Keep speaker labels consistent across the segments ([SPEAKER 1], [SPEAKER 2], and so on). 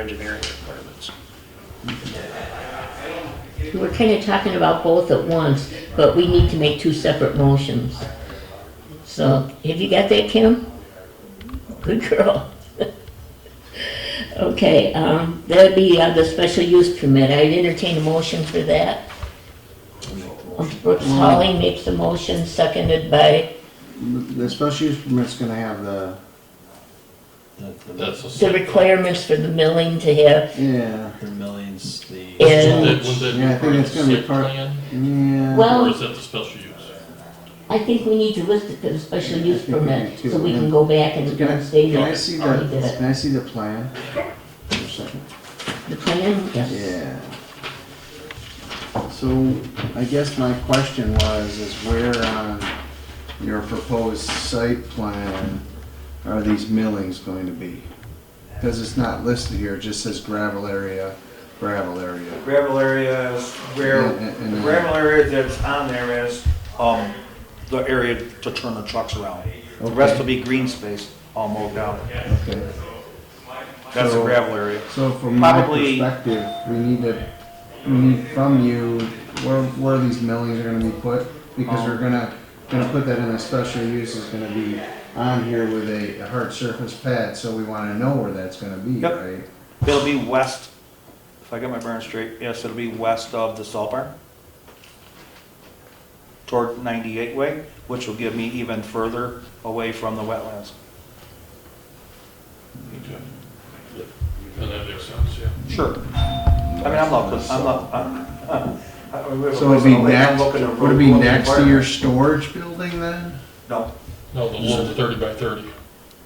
[SPEAKER 1] engineering requirements.
[SPEAKER 2] We're kind of talking about both at once, but we need to make two separate motions. So, have you got that, Kim? Good girl. Okay, um, that'd be uh, the special use permit. I'd entertain a motion for that. Um, Brooks Holly makes a motion, seconded by
[SPEAKER 3] The special use permit's gonna have the,
[SPEAKER 4] That's a
[SPEAKER 2] the requirements for the milling to have,
[SPEAKER 3] yeah,
[SPEAKER 4] the millions, the.
[SPEAKER 2] And-
[SPEAKER 4] Wasn't that- wasn't
[SPEAKER 3] Yeah, I
[SPEAKER 4] that
[SPEAKER 3] think
[SPEAKER 4] part of
[SPEAKER 3] it's
[SPEAKER 4] the
[SPEAKER 3] gonna be
[SPEAKER 4] site
[SPEAKER 3] part-
[SPEAKER 4] plan,
[SPEAKER 3] yeah.
[SPEAKER 2] Well-
[SPEAKER 4] Or is that the special use?
[SPEAKER 2] I think we need to list it for the special use permit, so we can go back and
[SPEAKER 3] Can I,
[SPEAKER 2] and say
[SPEAKER 3] can I
[SPEAKER 2] that.
[SPEAKER 3] see
[SPEAKER 2] already
[SPEAKER 3] the,
[SPEAKER 2] did it.
[SPEAKER 3] can I see the plan? For a second.
[SPEAKER 2] The plan, yes.
[SPEAKER 3] Yeah. So I guess my question was, is where on your proposed site plan are these millings going to be? Because it's not listed here, it just says gravel area, gravel area.
[SPEAKER 5] gravel area where,
[SPEAKER 3] And- and- and-
[SPEAKER 5] the gravel area that's on there is, um, the area to turn the trucks around. The rest
[SPEAKER 3] Okay.
[SPEAKER 5] will be green space, um, all mowed down.
[SPEAKER 3] Okay.
[SPEAKER 5] That's the
[SPEAKER 3] So-
[SPEAKER 5] gravel area.
[SPEAKER 3] So from my
[SPEAKER 5] Probably-
[SPEAKER 3] perspective, we need to, we need from you, where, where these millings are gonna be put? Because
[SPEAKER 5] Oh.
[SPEAKER 3] we're gonna, gonna put that in a special use is gonna be on here with a a hard surface pad, so we wanna know where that's gonna be,
[SPEAKER 5] Yep.
[SPEAKER 3] right?
[SPEAKER 5] It'll be west, if I get my bearings straight, yes, it'll be west of the salt barn. Toward ninety-eight way, which will give me even further away from the wetlands.
[SPEAKER 4] Okay. And that makes sense, yeah.
[SPEAKER 5] Sure. I mean, I'm not, I'm not, I'm.
[SPEAKER 3] So it'd be next, would it be next to your storage building then?
[SPEAKER 5] No,
[SPEAKER 4] No, the little thirty by thirty.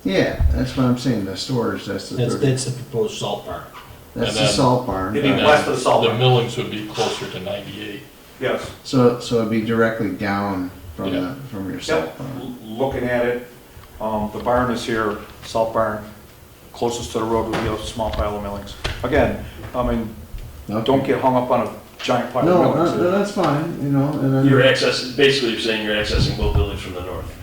[SPEAKER 3] Yeah, that's what I'm saying, the storage, that's the,
[SPEAKER 6] That's,
[SPEAKER 3] third-
[SPEAKER 6] that's the proposed salt barn.
[SPEAKER 3] that's
[SPEAKER 4] and
[SPEAKER 3] the
[SPEAKER 4] then-
[SPEAKER 3] salt barn.
[SPEAKER 5] It'd be
[SPEAKER 4] And then
[SPEAKER 5] west of the salt
[SPEAKER 4] The
[SPEAKER 5] mine.
[SPEAKER 4] millings would be closer to ninety-eight.
[SPEAKER 5] yes.
[SPEAKER 3] So, so it'd be directly down from
[SPEAKER 4] Yeah.
[SPEAKER 3] the, from your
[SPEAKER 5] Yep,
[SPEAKER 3] salt barn.
[SPEAKER 5] l- looking at it, um, the barn is here, salt barn, closest to the road would be a small pile of millings. Again, I mean, don't
[SPEAKER 3] Okay.
[SPEAKER 5] get hung up on a giant pile
[SPEAKER 3] No,
[SPEAKER 5] of
[SPEAKER 3] uh,
[SPEAKER 5] millings.
[SPEAKER 3] that's fine, you know, and then.
[SPEAKER 1] You're accessing, basically you're saying you're accessing both buildings from the north.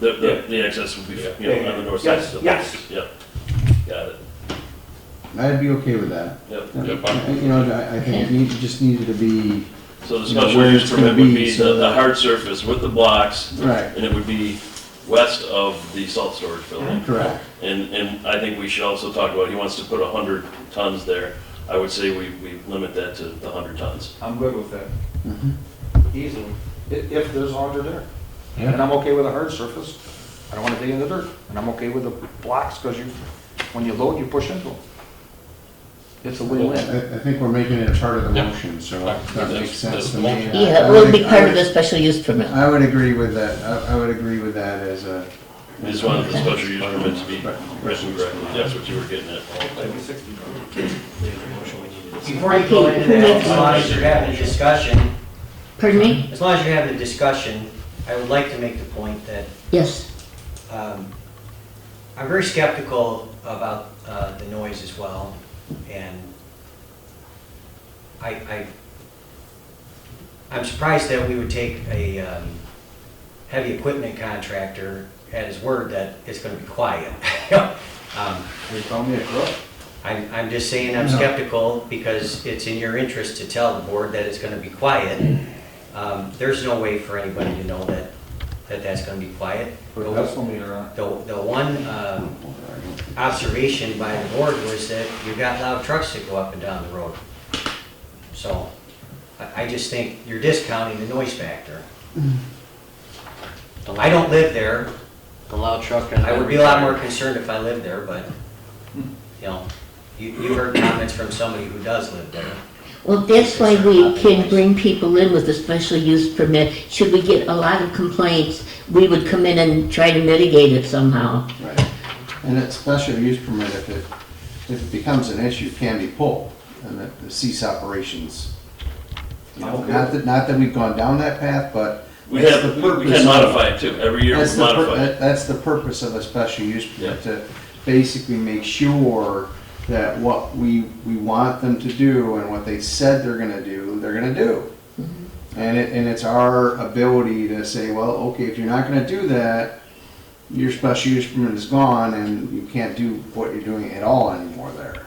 [SPEAKER 1] The, the, the access would be, you know, on the north side.
[SPEAKER 5] Yes,
[SPEAKER 1] so-
[SPEAKER 5] yes.
[SPEAKER 1] Yep. Got it.
[SPEAKER 3] I'd be okay with that.
[SPEAKER 1] Yep.
[SPEAKER 3] You
[SPEAKER 4] Yeah, fine.
[SPEAKER 3] know, I, I think it need- just needed to be,
[SPEAKER 1] So the
[SPEAKER 3] You know, where
[SPEAKER 1] special use
[SPEAKER 3] it's gonna
[SPEAKER 1] permit
[SPEAKER 3] be,
[SPEAKER 1] would be
[SPEAKER 3] so
[SPEAKER 1] the, the
[SPEAKER 3] that-
[SPEAKER 1] hard surface with the blocks,
[SPEAKER 3] right,
[SPEAKER 1] and it would be west of the salt storage building.
[SPEAKER 3] correct.
[SPEAKER 1] And, and I think we should also talk about, he wants to put hundred tons there. I would say we, we limit that to the hundred tons.
[SPEAKER 5] I'm good with that,
[SPEAKER 2] Mm-hmm.
[SPEAKER 3] Mhm.
[SPEAKER 5] easily, i- if there's under there.
[SPEAKER 3] Yeah.
[SPEAKER 5] And I'm okay with a hard surface, I don't wanna dig in the dirt, and I'm okay with the blocks, cause you, when you load, you push into them. It's a win-win.
[SPEAKER 3] I, I think we're making it a part of the
[SPEAKER 4] Yeah.
[SPEAKER 3] motion, so that makes sense to me.
[SPEAKER 4] That's- that's
[SPEAKER 2] Yeah, it will be part of the special use permit.
[SPEAKER 3] I would agree with that, I, I would agree with that as a.
[SPEAKER 1] We just wanted the special use permit to be
[SPEAKER 3] Right.
[SPEAKER 1] written correctly. That's what you were getting at.
[SPEAKER 7] Before you go into that, as long as you're having a discussion,
[SPEAKER 2] Pardon me?
[SPEAKER 7] as long as you're having a discussion, I would like to make the point that
[SPEAKER 2] Yes.
[SPEAKER 7] um, I'm very skeptical about uh, the noise as well, and I, I, I'm surprised that we would take a um, heavy equipment contractor at his word that it's gonna be quiet. Um,
[SPEAKER 5] They call me a crook.
[SPEAKER 7] I'm, I'm just saying I'm
[SPEAKER 3] No.
[SPEAKER 7] skeptical because it's in your interest to tell the board that it's gonna be quiet. Um, there's no way for anybody to know that, that that's gonna be quiet.
[SPEAKER 5] Put a
[SPEAKER 7] The,
[SPEAKER 5] decimal meter on.
[SPEAKER 7] the one, um, observation by the board was that you've got loud trucks that go up and down the road. So, I, I just think you're discounting the noise factor. I don't live there.
[SPEAKER 6] Mm-hmm. The loud truck and. Hmm.
[SPEAKER 7] I would be a lot more concerned if I lived there, but, you know, you, you heard comments from somebody who does live there.
[SPEAKER 2] Well, that's why we can bring people in with a special use permit. Should we get a lot of complaints, we would come in and try to mitigate it somehow.
[SPEAKER 3] Right, and that special use permit, if it, if it becomes an issue, can be pulled, and that the cease operations. You know,
[SPEAKER 5] Okay.
[SPEAKER 3] not that, not that we've gone down that path, but.
[SPEAKER 1] We
[SPEAKER 3] that's
[SPEAKER 1] have,
[SPEAKER 3] the
[SPEAKER 1] we
[SPEAKER 3] purpose
[SPEAKER 1] can
[SPEAKER 3] of-
[SPEAKER 1] modify it too. Every year
[SPEAKER 3] That's
[SPEAKER 1] we
[SPEAKER 3] the, pur-
[SPEAKER 1] modify it.
[SPEAKER 3] that- that's the purpose of a special use permit, to basically make sure that what we, we want them to do and what they said they're gonna do, they're gonna do. And it, and it's our ability to say, well, okay, if you're not gonna do that, your special use permit is gone and you can't do what you're doing at all anymore.